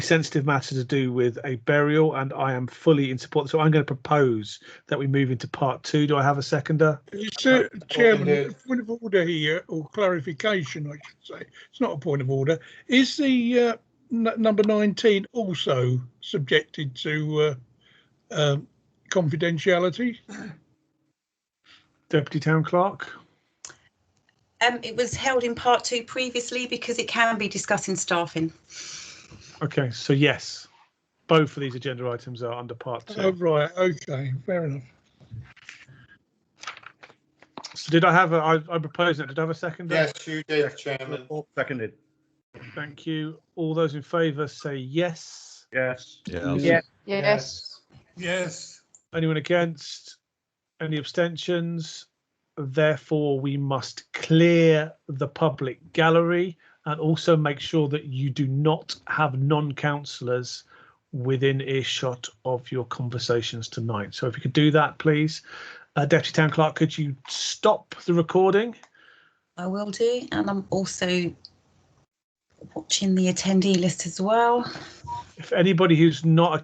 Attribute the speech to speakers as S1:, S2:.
S1: sensitive matter to do with a burial, and I am fully in support. So I'm going to propose that we move into part two. Do I have a seconder?
S2: Sir, Chairman, a point of order here, or clarification, I should say. It's not a point of order. Is the uh, n- number 19 also subjected to uh, um, confidentiality?
S1: Deputy Town Clerk?
S3: Um, it was held in part two previously because it can be discussing staffing.
S1: Okay, so yes, both of these agenda items are under part two.
S2: Oh, right, okay, fair enough.
S1: So did I have a, I, I proposed it, did I have a seconder?
S4: Yes, you did, Chairman.
S5: Seconded.
S1: Thank you. All those in favour say yes.
S5: Yes.
S6: Yes.
S7: Yes.
S4: Yes.
S1: Anyone against? Any abstentions? Therefore, we must clear the public gallery and also make sure that you do not have non-councillors within earshot of your conversations tonight. So if you could do that, please. Uh, Deputy Town Clerk, could you stop the recording?
S3: I will do, and I'm also watching the attendee list as well.
S1: If anybody who's not a